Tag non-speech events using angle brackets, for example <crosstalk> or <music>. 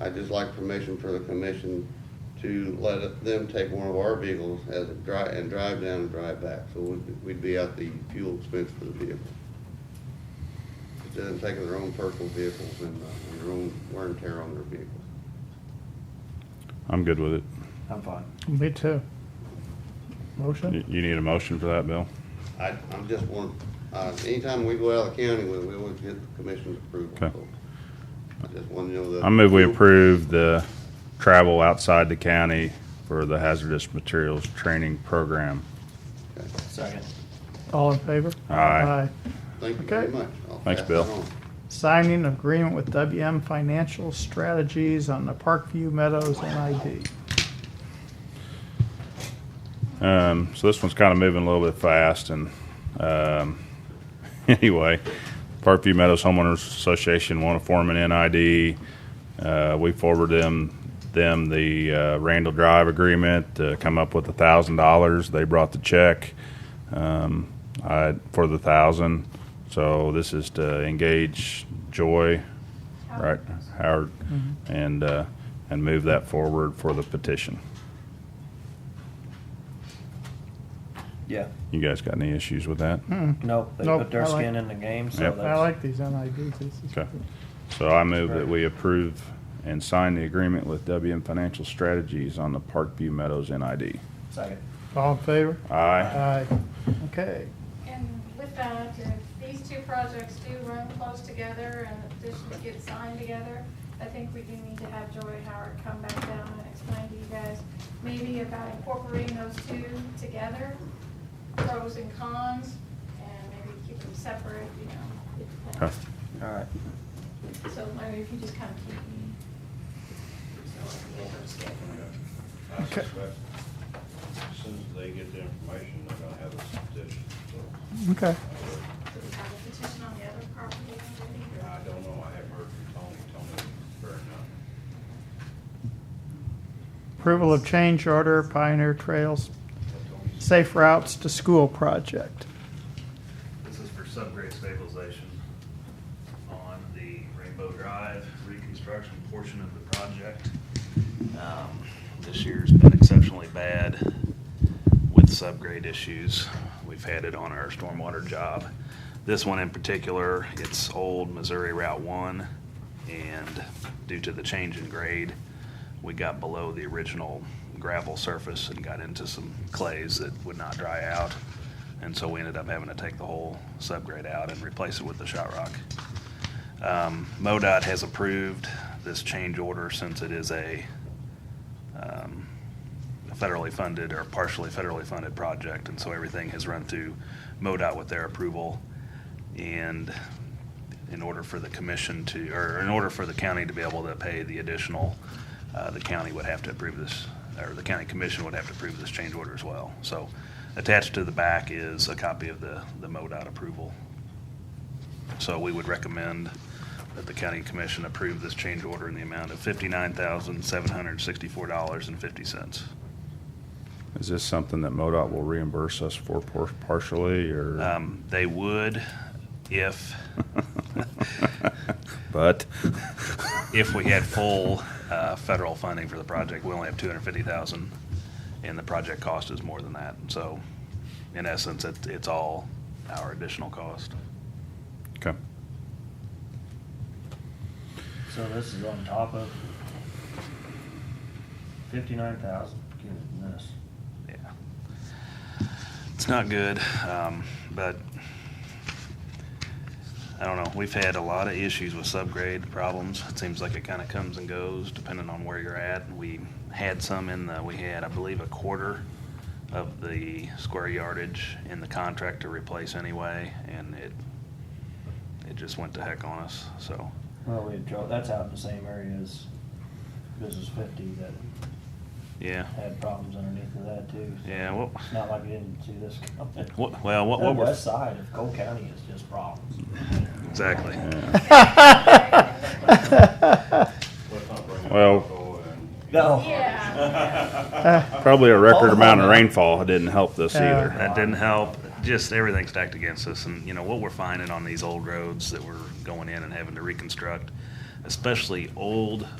I'd just like permission for the commission to let it- them take one of our vehicles as a dri, and drive down and drive back, so we'd, we'd be out the fuel expense for the vehicle. Instead of taking their own personal vehicles and, uh, and their own wear and tear on their vehicles. I'm good with it. I'm fine. Me too. You Motion? you need a motion for that, Bill? I, I'm just one, uh, anytime we go out of the county with it, we always get the commission's approval, Okay. so. I just want to know that. I move we approve the travel outside the county for the hazardous materials training program. Okay. Second. All in favor? Aye. Thank you very Okay. much. I'll Thanks, pass Bill. that on. Signing agreement with WM Financial Strategies on the Parkview Meadows NID. Um, so this one's kind of moving a little bit fast, and um, <laughs> anyway, Parkview Meadows Homeowners Association want to form an NID. Uh, we forwarded them them the uh, Randall Drive agreement to come up with a thousand dollars. They brought the check um, I, for the thousand. So this is to engage Joy, right, Howard, and uh, and move that forward for the petition. Yeah. You guys got any issues with that? Nope, they Nope, put their I like- skin in the game, so Yep. Hmm. I that's, like these NIDs. This is Okay. good. So I move that we approve and sign the agreement with WM Financial Strategies on the Parkview Meadows NID. second. All in favor? Aye. Aye. Okay. And with that, if these two projects do run close together and the petitions get signed together, I think we do need to have Joy Howard come back down and explain to you guys maybe about incorporating those two together, pros and cons, and maybe keep them separate, you know. Okay. it All right. depends. So Larry, if you just kind of keep me, so I can get her scheduled. I Okay. suspect as soon as they get the information, they're gonna have a petition, so Okay. Do we have a petition on the other property already? or- I don't know, I haven't heard from Tony, Tony, fair enough. Approval of change order Pioneer Trails Safe Routes to School Project. <laughs> This is for subgrade stabilization on the Rainbow Drive reconstruction portion of the project. Um, This year's been exceptionally bad with subgrade issues. We've had it on our stormwater job. This one in particular, it's old Missouri Route 1, and due to the change in grade, we got below the original gravel surface and got into some clays that would not dry out. And so we ended up having to take the whole subgrade out and replace it with the shot rock. Um, MoDOT has approved this change order since it is a um, federally funded or partially federally funded project. And so everything has run through MoDOT with their approval. And in order for the commission to, or in order for the county to be able to pay the additional, uh, the county would have to approve this, or the county commission would have to approve this change order as well. So attached to the back is a copy of the, the MoDOT approval. So we would recommend that the county commission approve this change order in the amount of fifty-nine thousand, seven hundred and sixty-four dollars and fifty cents. Is this something that MoDOT will reimburse us for por- partially, or? Um, they would if, But, if we had full, uh, federal funding for the project. We only have two hundred fifty thousand, and the project cost is more than that. So in essence, it, it's all our additional cost. okay. So this is on top of fifty-nine thousand, goodness. Yeah. It's not good, um, but I don't know. We've had a lot of issues with subgrade problems. It seems like it kind of comes and goes depending on where you're at. We had some in the, we had, I believe, a quarter of the square yardage in the contract to replace anyway, and it, it just went to heck on us, so. Well, we drove, that's out in the same area as Business Fifty that Yeah, had problems underneath of that too. yeah, well, It's not like we didn't see this coming. What- well, what- what The we're- west side of Cole County is just problems. exactly. Let's not bring up Well- alcohol and- No. Yeah. Probably a record amount of rainfall didn't help this Yeah. either. That didn't help. Just everything stacked against us. And, you know, what we're finding on these old roads that we're going in and having to reconstruct, especially old